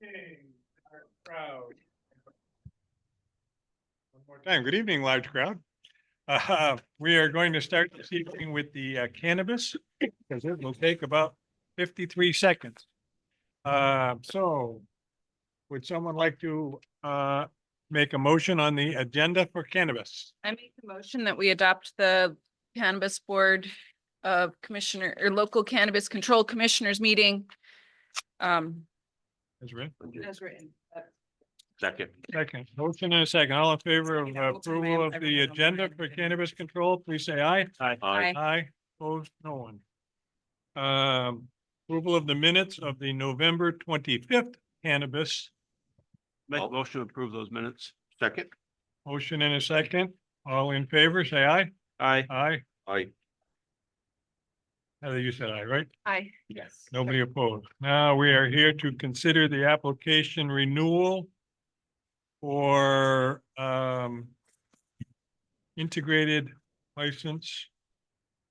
King, our crowd. One more time, good evening, large crowd. Uh, we are going to start this evening with the uh, cannabis, because it will take about fifty-three seconds. Uh, so, would someone like to, uh, make a motion on the agenda for cannabis? I make the motion that we adopt the cannabis board of commissioner or local cannabis control commissioners meeting. Um, Is read, as written. Second. second, motion and a second, all in favor of You know, uh, approval of the everyone will agenda read for it. cannabis control, please say aye. Aye. Aye. Aye, opposed, no one. Um, approval of the minutes of the November twenty-fifth cannabis, Make a motion to approve those minutes. Second. motion in a second. All in favor, say aye. Aye. Aye. Aye. Heather, you said aye, right? Aye. Yes. Nobody opposed. Now we are here to consider the application renewal for, um, integrated license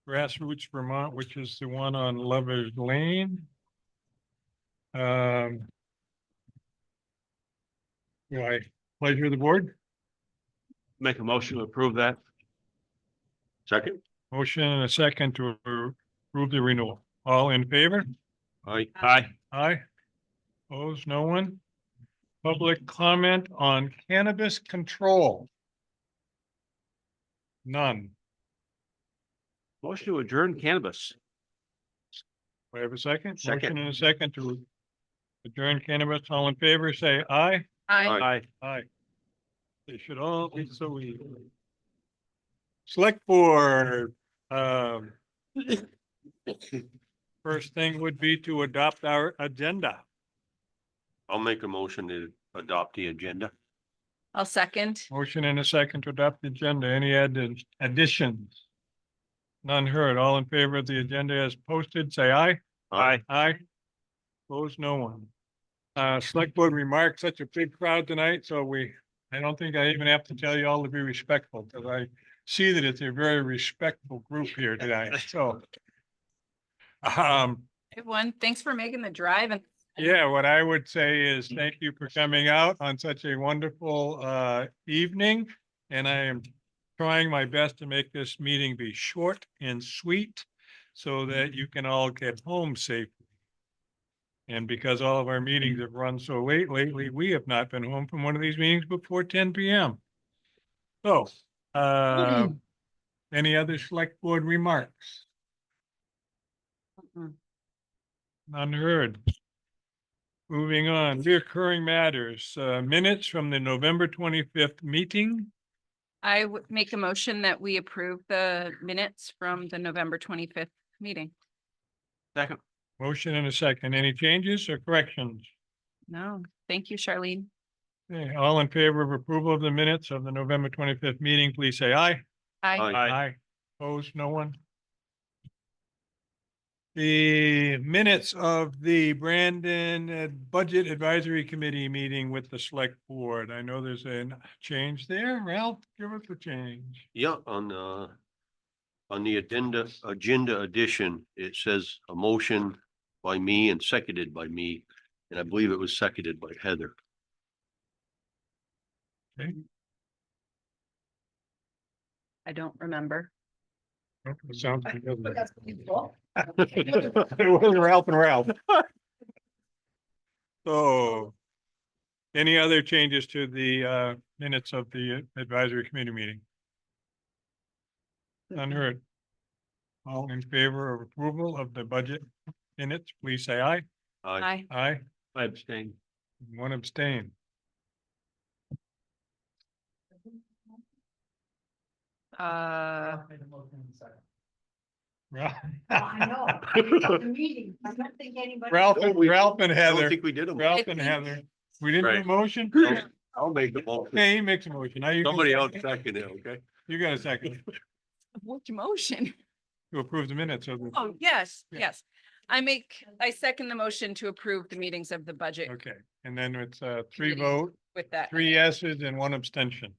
Grassroots Vermont, which is the one on Lover's Lane. Um, do I pleasure of the board? Make a motion to approve that. Second. Motion and a second to approve the renewal. All in favor? Aye. Aye. Aye. Opposed, no one. Public comment on cannabis control. None. Motion to adjourn cannabis. We have a second? Second. Motion and a second to adjourn cannabis. All in favor, say aye. Aye. Aye. They should all be so easy. Select board, um, first thing would be to adopt our agenda. I'll make a motion to adopt the agenda. I'll second. Motion and a second to adopt the agenda. Any added additions? None heard. All in favor of the agenda as posted, say aye. Aye. Aye. Opposed, no one. Uh, select board remarks, such a big crowd tonight, so we, I don't think I even have to tell you all to be respectful, because I see that it's a very respectful group here tonight, so. Um, Everyone, thanks for making the drive and yeah, what I would say is thank you for coming out on such a wonderful uh evening. And I am trying my best to make this meeting be short and sweet so that you can all get home safely. And because all of our meetings have run so late lately, we have not been home from one of these meetings before ten PM. So, uh, any other select board remarks? Mm-mm. None heard. Moving on, reoccurring matters, uh, minutes from the November twenty-fifth meeting. I would make a motion that we approve the minutes from the November twenty-fifth meeting. Second. Motion and a second. Any changes or corrections? No, thank you, Charlene. Okay, All in favor of approval of the minutes of the November twenty-fifth meeting, please say aye. Aye. Aye. Opposed, no one? The minutes of the Brandon uh, Budget Advisory Committee meeting with the select board. I know there's a change there. Ralph, give us the change. Yeah, on, uh, on the addenda, agenda addition, it says a motion by me and seconded by me. And I believe it was seconded by Heather. I don't remember. Oh, it sounds familiar. It It was Ralph and Ralph. So. Any other changes to the uh minutes of the advisory committee meeting? Unheard. All in favor of approval of the budget minutes, please say aye. Aye. Aye. Aye, I abstain. one abstain. Uh, Ralph I know. It's a meeting. I don't think anybody. Ralph and Ralph and I don't Heather, think we did them. Ralph and Heather. We didn't do a Right. motion? I'll- I'll make the motion. Hey, he makes a motion. Now you. can Somebody else second. second it, okay? You got a second which motion? to approve the minutes of the. Oh, yes, Yeah. yes. I make, I second the motion to approve the meetings of the budget Okay, and then it's uh three Committee. vote, with that. three yeses and one abstention.